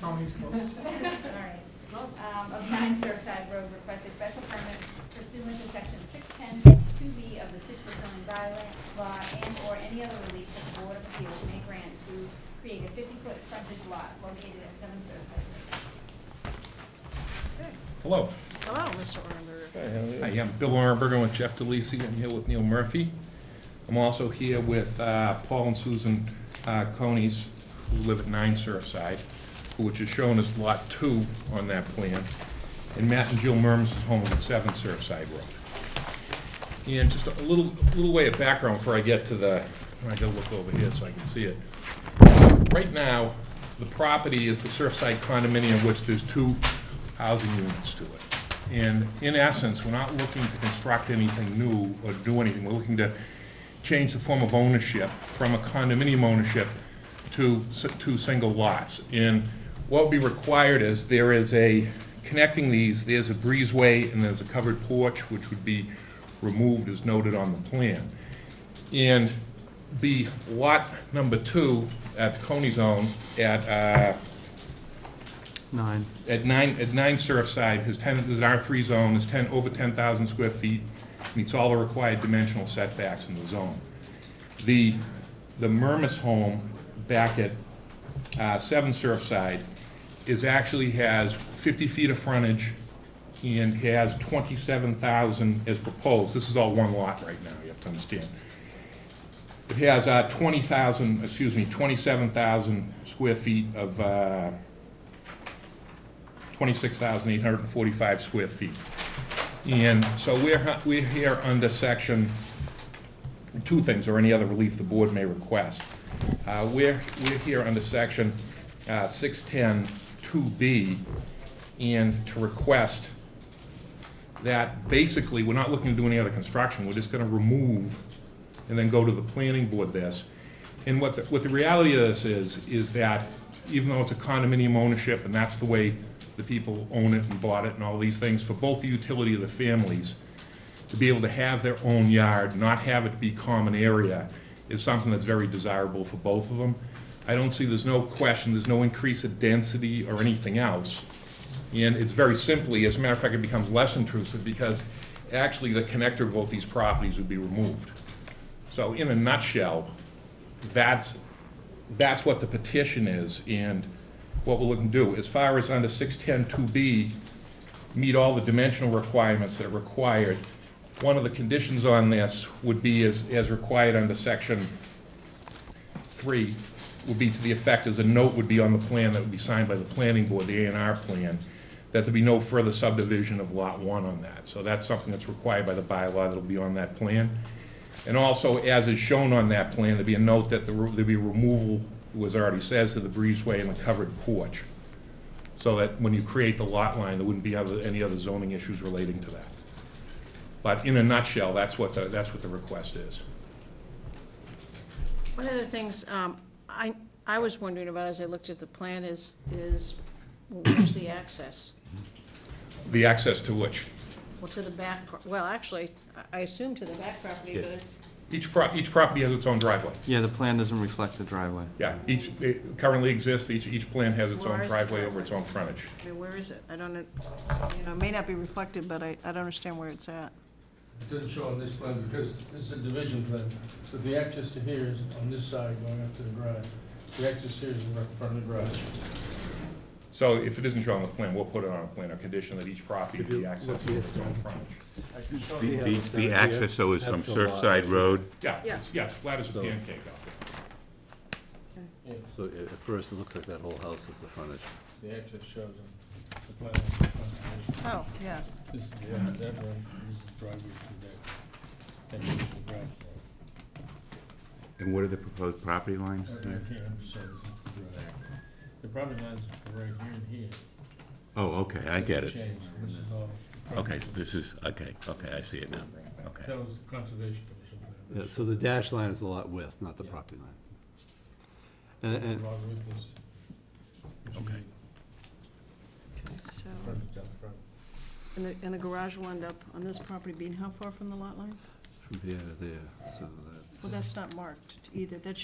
Tony's close. Alright. Um, of nine Surfside Road requests a special permit pursuant to section six ten two B of the Citrus zoning bylaw and or any other relief that the Board of Appeals may grant to create a fifty foot frontage lot located at seven Surfside Road. Hello. Hello, Mr. Orenberger. Hi, I'm Bill Orenberger with Jeff DeLisi. I'm here with Neil Murphy. I'm also here with uh, Paul and Susan uh, Conies, who live at 9 Surfside, which is shown as Lot 2 on that plan, and Matt and Jill Murms is home at 7 Surfside Road. And just a little, little way of background before I get to the, I gotta look over here so I can see it. Right now, the property is the Surfside condominium, which there's two housing units to it. And in essence, we're not looking to construct anything new or do anything. We're looking to change the form of ownership from a condominium ownership to s- two single lots. And what would be required is there is a, connecting these, there's a breezeway and there's a covered porch, which would be removed as noted on the plan. And the lot number two at Coney's own at, uh, Nine. at nine, at nine Surfside, his ten, this is an R three zone, is ten, over ten thousand square feet, meets all the required dimensional setbacks in the zone. The, the Murmas home back at, uh, seven Surfside is actually has fifty feet of frontage and has twenty-seven thousand as proposed, this is all one lot right now, you have to understand. It has, uh, twenty thousand, excuse me, twenty-seven thousand square feet of, uh, 26,845 square feet. And so we're, hu- we're here under section, two things, or any other relief the board may request. Uh, We're, we're here under section uh, 610-2B, and to request that basically, we're not looking to do any other construction, we're just gonna remove and then go to the planning board this. And what, the- what the reality of this is, is that even though it's a condominium ownership, and that's the way the people own it and bought it and all these things, for both the utility of the families, to be able to have their own yard, not have it be common area, is something that's very desirable for both of them. I don't see, there's no question, there's no increase of density or anything else. And it's very simply, as a matter of fact, it becomes less intrusive because actually the connector of both these properties would be removed. So in a nutshell, that's, that's what the petition is and what we're looking to do. As far as under 610-2B, meet all the dimensional requirements that are required. One of the conditions on this would be as, as required under section three would be to the effect as a note would be on the plan that would be signed by the planning board, the A and R plan, that there be no further subdivision of lot one on that. So that's something that's required by the bylaw that'll be on that plan. And also, as is shown on that plan, there'd be a note that the re- there'd be removal, was already says, to the breezeway and the covered porch. So that when you create the lot line, there wouldn't be other, any other zoning issues relating to that. But in a nutshell, that's what the, that's what the request is. One of the things um, I, I was wondering about as I looked at the plan is, is where's the access? The access to which? Well, to the back, pro- well, actually, I- I assume to the back property, but it's, Each pro, each property has its own driveway. Yeah, the plan doesn't reflect the driveway. Yeah, each, it currently exists, each, each plan has its Where own is the driveway over driveway? its own frontage. I mean, where is it? I don't, un- you know, it may not be reflected, but I, I don't understand where it's at. It doesn't show on this plan because this is a division plan, but the access to here is on this side going up to the garage. The access here is right in front of the garage. So if it isn't shown on the plan, we'll put it on a plan, a condition that each property be accessed over its own frontage. The- The the access, though, is from That's the lot. Surfside Road. Yeah, it's, yeah, it's flat as a So- pancake out there. So at at first, it looks like that whole house is the frontage. The access shows on the plan. on the front page. Oh, yeah. This is the end of that road, this is the driveway through there. And this is the garage. And what are the proposed property lines? Right here, I'm sorry, this is the garage. The property lines are right here and here. Oh, okay, I get it. Changed, this is all. Okay, this is, okay, okay, I see it now. Okay. That was the Conservation Commission. Yeah, plan. so the dashed line is the lot width, not the Yeah. property line. Uh, And, and, Along with this. Okay. So, Frontage out front. and the, and the garage will end up on this property being how far from the lot line? from here to there, so that's. Well, that's not marked either. That should